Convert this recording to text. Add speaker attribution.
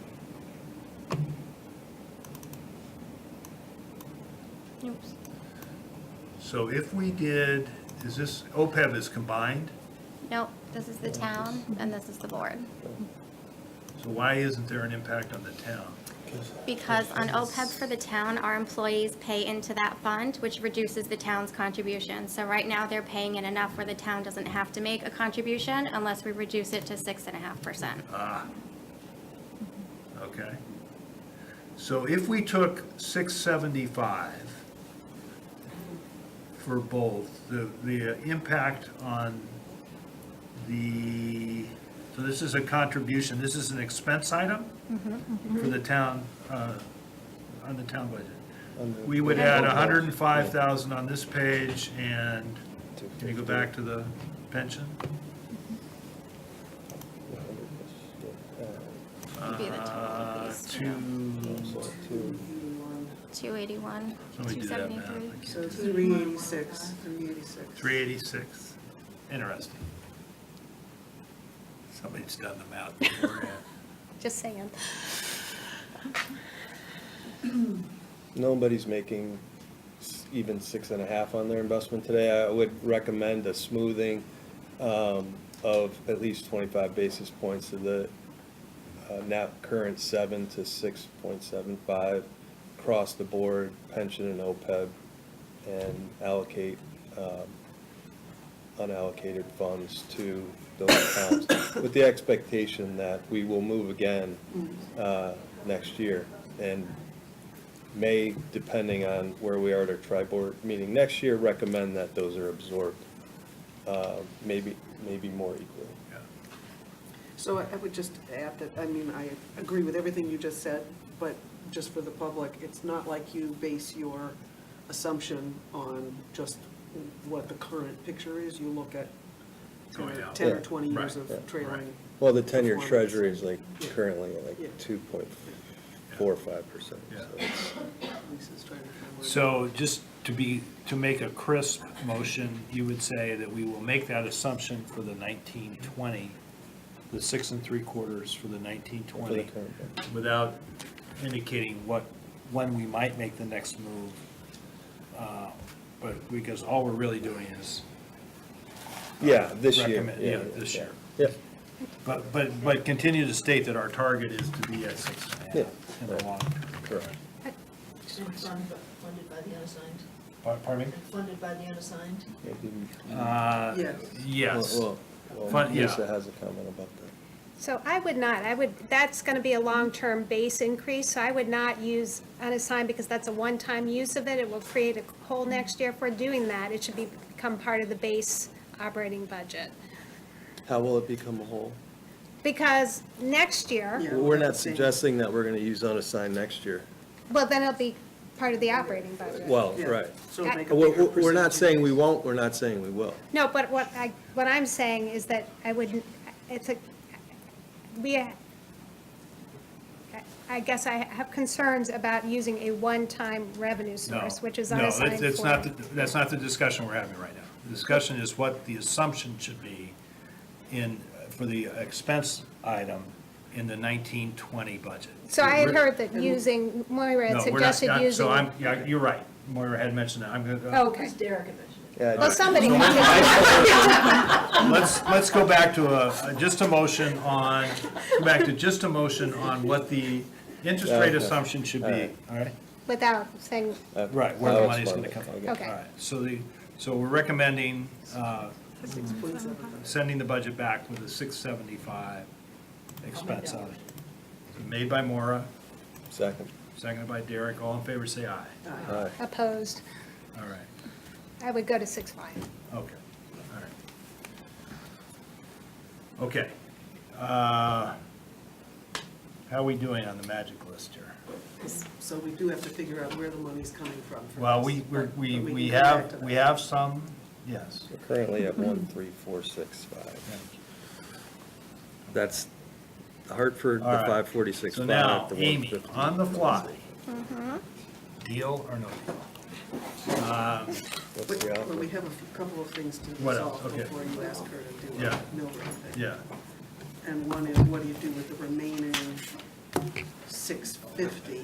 Speaker 1: Oops.
Speaker 2: So if we did, is this, OPEB is combined,
Speaker 1: Nope, this is the town and this is the board.
Speaker 2: so why isn't there an impact on the town?
Speaker 1: Because on OPEB for the town, our employees pay into that fund, which reduces the town's contribution. So right now, they're paying in enough where the town doesn't have to make a contribution unless we reduce it to six and a half percent.
Speaker 2: Ah. Okay. So if we took six seventy-five for both, the, the uh, impact on the, so this is a contribution, this is an expense item
Speaker 1: Mm-hmm,
Speaker 2: for the town, uh, on the town budget. We would add a hundred and five thousand on this page and, can you go back to the pension?
Speaker 1: Would be the total of
Speaker 2: Uh,
Speaker 1: these two.
Speaker 2: Two,
Speaker 1: Two eighty-one,
Speaker 2: Somebody
Speaker 1: two
Speaker 2: do that math.
Speaker 1: seventy-three.
Speaker 3: So three eighty-six, three eighty-six.
Speaker 2: 386. Interesting. Somebody's done the math before.
Speaker 1: Just saying.
Speaker 4: Nobody's making s- even six and a half on their investment today. I would recommend a smoothing um, of at least 25 basis points of the uh, now current seven to 6.75 across the board, pension and OPEB, and allocate um, unallocated funds to those accounts, with the expectation that we will move again uh, next year. And may, depending on where we are at our tri-board meeting next year, recommend that those are absorbed, uh, maybe, maybe more equally.
Speaker 2: Yeah.
Speaker 3: So I I would just add that, I mean, I agree with everything you just said, but just for the public, it's not like you base your assumption on just what the current picture is. You look at
Speaker 2: Going out.
Speaker 3: ten or
Speaker 4: Yeah.
Speaker 3: twenty years
Speaker 2: Right.
Speaker 4: Yeah.
Speaker 3: of trailing.
Speaker 2: Right.
Speaker 4: Well, the ten-year
Speaker 3: Performance.
Speaker 4: treasury is like
Speaker 3: Yeah.
Speaker 4: currently at
Speaker 3: Yeah.
Speaker 4: like two point four five percent.
Speaker 2: Yeah.
Speaker 3: Lisa's trying to find where-
Speaker 2: So just to be, to make a crisp motion, you would say that we will make that assumption for the 1920, the six and three quarters for the 1920, without indicating what, when we might make the next move. Uh, But, because all we're really doing is
Speaker 4: Yeah, Uh, this year.
Speaker 2: Recommend- yeah, this year.
Speaker 4: Yeah,
Speaker 2: But, but, but continue to state that our target is to be at six and a half
Speaker 4: Yeah.
Speaker 2: in the long term.
Speaker 4: correct.
Speaker 5: So it's fund- Funded by the unassigned,
Speaker 2: Pa- Pardon me?
Speaker 5: funded by the unassigned?
Speaker 4: Maybe-
Speaker 2: Uh,
Speaker 3: Yes.
Speaker 2: Yes.
Speaker 4: Well, well,
Speaker 2: Fun- yeah.
Speaker 4: Lisa has a comment about that.
Speaker 6: So I would not, I would, that's going to be a long-term base increase, so I would not use unassigned because that's a one-time use of it. It will create a hole next year. If we're doing that, it should be, become part of the base operating budget.
Speaker 4: How will it become a whole?
Speaker 6: Because next year,
Speaker 3: Yeah.
Speaker 4: We're not
Speaker 3: that's the same.
Speaker 4: suggesting that we're gonna use unassigned next year.
Speaker 6: well, then it'll be part of the operating budget.
Speaker 4: Well,
Speaker 3: Yeah.
Speaker 4: right.
Speaker 3: So make a
Speaker 4: We're,
Speaker 3: bigger
Speaker 4: we're- we're not
Speaker 3: percentage.
Speaker 4: saying we won't, we're not saying we will.
Speaker 6: No, but what I, what I'm saying is that I wouldn't, it's a, we, I- I guess I have concerns about using a one-time revenue
Speaker 2: No.
Speaker 6: source, which is
Speaker 2: No, that's-
Speaker 6: unassigned for.
Speaker 2: that's not, the- that's not the discussion we're having right now. The discussion is what the assumption should be in, for the expense item in the 1920 budget.
Speaker 6: So I had heard that using, Moira had
Speaker 2: No, we're not-
Speaker 6: suggested
Speaker 2: I'm-
Speaker 6: using.
Speaker 2: So I'm, yeah, you're right. Moira had mentioned that. I'm going to.
Speaker 6: Okay.
Speaker 5: Because Derek had mentioned it.
Speaker 4: Yeah,
Speaker 6: Well, somebody,
Speaker 2: So
Speaker 6: can-
Speaker 2: Let's, let's go back to a, just a motion on, go back to just a motion on what the interest rate
Speaker 4: Okay.
Speaker 2: assumption should be, all right?
Speaker 6: without saying,
Speaker 4: uh,
Speaker 2: Right, where the
Speaker 4: I'll
Speaker 2: money's
Speaker 4: explain
Speaker 2: gonna come
Speaker 4: it.
Speaker 2: from.
Speaker 4: I
Speaker 2: All
Speaker 6: Okay.
Speaker 2: right, so the, so we're recommending, uh,
Speaker 3: Six point seven.
Speaker 2: sending the budget back with a six seventy-five expense
Speaker 5: I'll
Speaker 2: on
Speaker 5: make
Speaker 2: it. Made by Mora,
Speaker 4: Second.
Speaker 2: seconded by Derek, all in favor, say aye.
Speaker 3: Aye.
Speaker 4: Aye.
Speaker 6: oh. opposed,
Speaker 2: All right,
Speaker 6: I would go to six five.
Speaker 2: okay, all right. Okay, uh, how are we doing on the magic list here?
Speaker 3: So we do have to figure out where the money's coming from. for
Speaker 2: Well,
Speaker 3: this,
Speaker 2: we, we're-
Speaker 3: but-
Speaker 2: we,
Speaker 3: but
Speaker 2: we
Speaker 3: can go back to
Speaker 2: have,
Speaker 3: that.
Speaker 2: we have some, yes.
Speaker 4: We're Currently at one, three, four, six, five. That's Hartford, the
Speaker 2: All right.
Speaker 4: five forty-six,
Speaker 2: So
Speaker 4: five.
Speaker 2: now,
Speaker 4: the one
Speaker 2: Amy,
Speaker 4: fifty.
Speaker 2: on the fly,
Speaker 3: Mm-hmm.
Speaker 2: deal or no deal?
Speaker 4: What's the
Speaker 3: But but we
Speaker 4: outcome?
Speaker 3: have a few- couple of things to
Speaker 2: What else?
Speaker 3: resolve
Speaker 2: Okay.
Speaker 3: before you ask her to do
Speaker 2: Yeah.
Speaker 3: a mill rate thing.
Speaker 2: Yeah,
Speaker 3: And one is, what do you do with the remaining six fifty